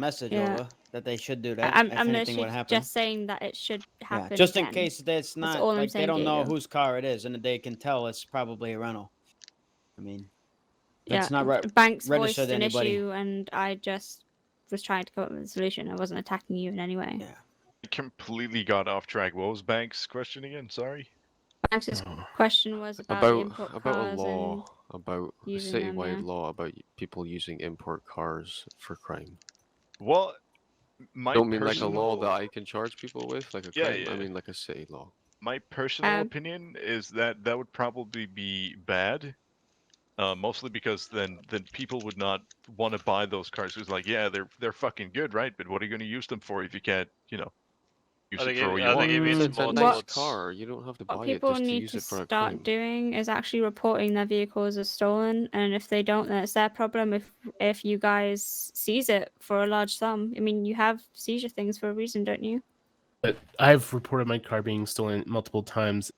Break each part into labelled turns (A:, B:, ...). A: message
B: Yeah.
A: over that they should do that.
B: I'm,
A: if
B: I'm
A: anything would
B: literally
A: happen.
B: just saying that it should
A: Yeah,
B: happen.
A: just in
B: again.
A: case that's not
B: all I'm
A: like they
B: saying,
A: don't know
B: Diego.
A: whose car it is, and they can tell it's probably a rental. I mean,
B: yeah,
A: that's not right.
B: Banks voiced
A: registered
B: an
A: anybody.
B: issue, and I just was trying to come up with a solution. I wasn't attacking you in any way.
A: Yeah.
C: I completely got off track. What was Banks' question again? Sorry.
B: Banks's question was about, import
D: about about a
B: cars
D: law
B: and
D: about a
B: using them,
D: citywide
B: yeah.
D: law about y- people using import cars for crime.
C: Well, my
D: I don't mean like a law
C: personal-
D: that I can charge people with, like a
C: Yeah,
D: crime.
C: yeah.
D: I mean like a city law.
C: My personal
B: Um,
C: opinion is that that would probably be bad. Uh, mostly because then then people would not want to buy those cars. It's like, yeah, they're they're fucking good, right? But what are you going to use them for if you can't, you know, use
E: I
C: it
E: think
C: for
E: it-
C: what you
E: I
C: want?
E: think it means
D: It's a
E: more
D: nice
E: towards-
D: car. You don't have to buy
B: what
D: it
B: people
D: just to
B: need
D: use
B: to
D: it for a
B: start
D: crime.
B: doing is actually reporting their vehicles as stolen, and if they don't, then it's their problem. If if you guys seize it for a large sum, I mean, you have seizure things for a reason, don't you?
F: But I've reported my car being stolen multiple times.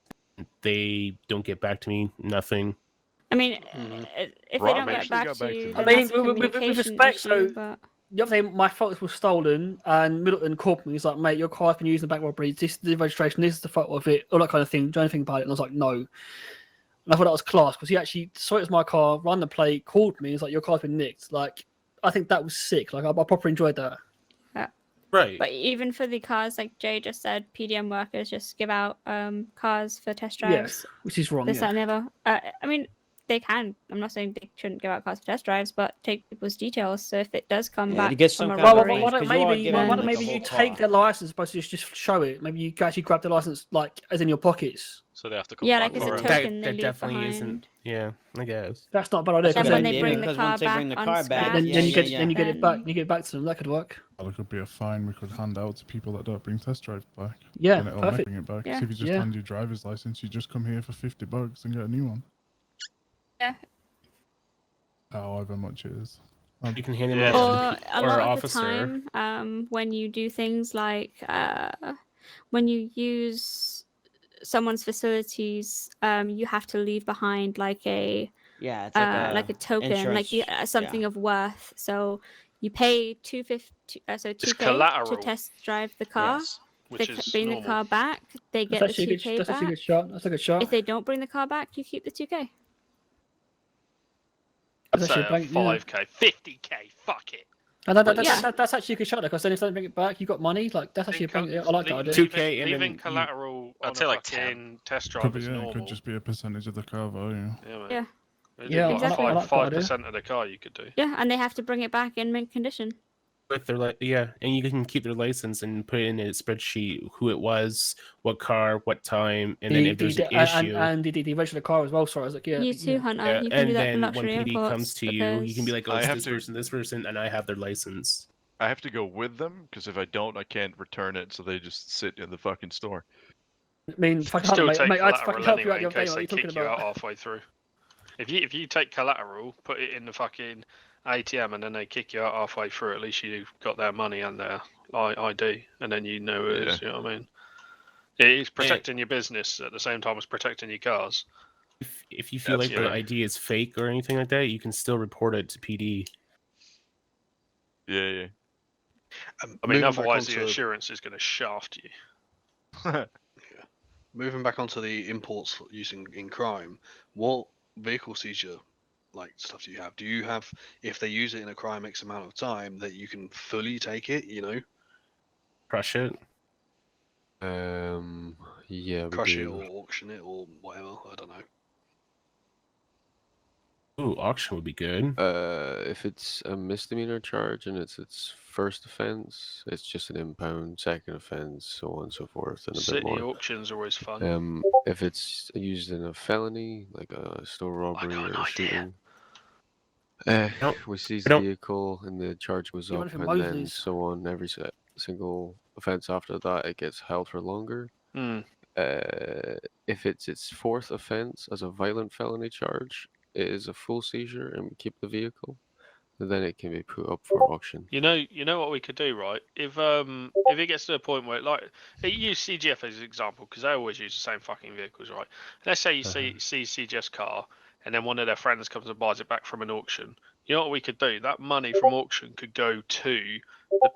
F: They don't get back to me. Nothing.
B: I mean,
D: Mm.
A: Mhm.
B: uh, if
C: Rob
B: they don't get
C: actually
B: back
C: got
B: to
C: back
B: you, then
C: to
G: me. I mean,
B: that's a
G: with- with- with
B: communication
G: respect,
B: issue,
G: so-
B: but-
G: The other day, my faults were stolen, and Middleton called me. He's like, "Mate, your car's been used in the back robbery. This is the registration. This is the photo of it. All that kind of thing. Do you know anything about it?" And I was like, "No." And I thought that was class because he actually saw it was my car, ran the plate, called me. He's like, "Your car's been nicked." Like, I think that was sick. Like, I, I properly enjoyed that.
F: Right.
B: But even for the cars, like Jay just said, PDM workers just give out um cars for test drives.
G: Which is wrong.
B: This,
G: Oh, yeah.
B: that, and the other. Uh, I mean, they can. I'm not saying they shouldn't give out cars for test drives, but take people's details. So if it does come
A: Yeah,
B: back
A: you get some
B: from a
A: kind of
G: Well,
B: robbery,
G: why- why,
A: range,
G: why
A: 'cause
G: don't
A: you are
G: maybe,
A: giving
G: why, why
A: them,
G: don't
A: like,
G: maybe
A: the
G: you
A: whole
G: take
A: car.
G: their license, but just just show it. Maybe you actually grab their license like as in your pockets.
E: So they have to come
B: yeah,
E: back
B: like it's
E: for
B: a
E: it.
F: That-
B: token they
F: that
B: leave
F: definitely
B: behind.
F: isn't- Yeah, I guess.
G: That's not a bad idea.
A: That's
B: Then
A: a
B: when
A: good
B: they
A: idea,
B: bring the
A: because
B: car
A: once they bring
B: back
A: the car back,
G: Then,
B: unscratched,
A: yeah,
G: then
A: yeah,
G: you get
A: yeah.
G: then you get it
B: Then-
G: back. You get it back to them. That could work.
H: Well, there could be a fine we could hand out to people that don't bring test drives back.
G: Yeah,
H: and it'll
G: perfect.
H: bring it eh? back. 'Cause
B: Yeah.
H: if you just
G: Yeah.
H: hand your driver's license, you just come here for 50 bucks and get a new one.
B: Yeah.
H: However much it is.
F: You can hand them
E: Yeah.
F: off.
B: or
F: to
B: a
F: or
B: lot of
F: officer.
B: the time um, when you do things like uh, when you use someone's facilities um, you have to leave behind like a
A: Yeah, it's
B: uh,
A: like, a,
B: like a token like you,
A: insurance-
B: uh, something of worth so you pay 250 uh, so 2k to
E: collateral.
B: test drive the car
E: Yes,
B: they
E: which
B: c-
E: is
B: bring
E: normal.
B: the car back they get
G: That's actually a
B: the
G: good.
B: 2k
G: That's actually a
B: back
G: good shot. That's a good shot.
B: if they don't bring the car back you keep the 2k
G: That's
E: So
G: actually a blank, yeah.
E: uh, five k, fifty k. Fuck it.
G: And that,
B: But
G: that, that,
B: yeah.
G: that, that's actually a good shot because then if they bring it back, you got money. Like that's actually a
E: Leave
G: big, I like that
E: leave-
G: idea.
F: Two- 2K and
E: leaving
F: then you-
E: collateral.
I: I'd
E: on
I: say
E: a
I: like
E: fucking Test drive
H: Could be,
E: is
H: yeah, it
E: normal.
H: could just be a percentage of the car value.
E: Yeah,
B: Yeah.
G: Yeah,
B: I like- I
G: like that
E: Five
G: idea.
E: percent of the car you could do.
B: yeah and they have to bring it back in mint condition
F: with their li- yeah, and you can keep their license and put it in a spreadsheet who it was, what car, what time, and then
G: The-
F: if there's
G: the-
F: an
G: and- and-
F: issue,
G: and the, the, the register car as well. Sorry, I was like, yeah,
B: you
G: yeah.
B: too hunter
F: yeah,
B: you can do
F: and
B: that for
F: then when
B: luxury
F: PD
B: imports
F: comes to you, you can
B: because-
F: be like, "Oh,
C: I
F: it's
C: have
F: this
C: to-
F: person, this person, and I have their license."
C: I have to go with them because if I don't, I can't return it. So they just sit in the fucking store.
G: I mean, fucking
E: Still
G: mate,
E: take
G: mate, I'd fucking
E: collateral
G: help you out
E: anyway
G: your
E: in
G: day.
E: case
G: What are
E: they
G: you talking
E: kick you out
G: about?
E: halfway through. If you if you take collateral, put it in the fucking ATM, and then they kick you out halfway through. At least you got their money and their I- ID, and then you know it is. You know what I mean? It is protecting your business at the same time as protecting your cars.
F: If, if you feel
E: That's
F: like the
E: right.
F: ID is fake or anything like that, you can still report it to PD.
C: Yeah, yeah.
E: I mean,
D: Moving back
E: otherwise the
I: onto-
E: insurance is going to shaft you.
I: Moving back onto the imports for- using in crime, what vehicle seizure like stuff do you have? Do you have if they use it in a crime X amount of time that you can fully take it? You know,
F: Crush it.
D: Um, yeah, we
I: crush it
D: do.
I: or auction it or whatever. I don't know.
F: Ooh, auction would be good.
D: Uh, if it's a misdemeanor charge and it's its first offense, it's just an impound. Second offense, so on and so forth, and a
E: City
D: bit more.
E: auctions are always fun.
D: Um, if it's used in a felony, like a store
E: Oh, got
D: robbery
E: an
D: or
E: idea.
D: shooting, uh,
F: don't-
D: we seize
F: I
D: the
F: don't-
D: vehicle and the charge goes
G: You
D: up,
G: want it for
D: and then
G: Mosley's.
D: so on. Every si- single offense after that, it gets held for longer.
E: Hmm.
D: Uh, if it's its fourth offense as a violent felony charge, it is a full seizure and we keep the vehicle. Then it can be put up for auction.
E: You know, you know what we could do, right? If um, if it gets to a point where, like, eh, use CGF as an example because they always use the same fucking vehicles, right?
D: Uh-huh.
E: Let's say you see see CGF's car, and then one of their friends comes and buys it back from an auction. You know what we could do? That money from auction could go to the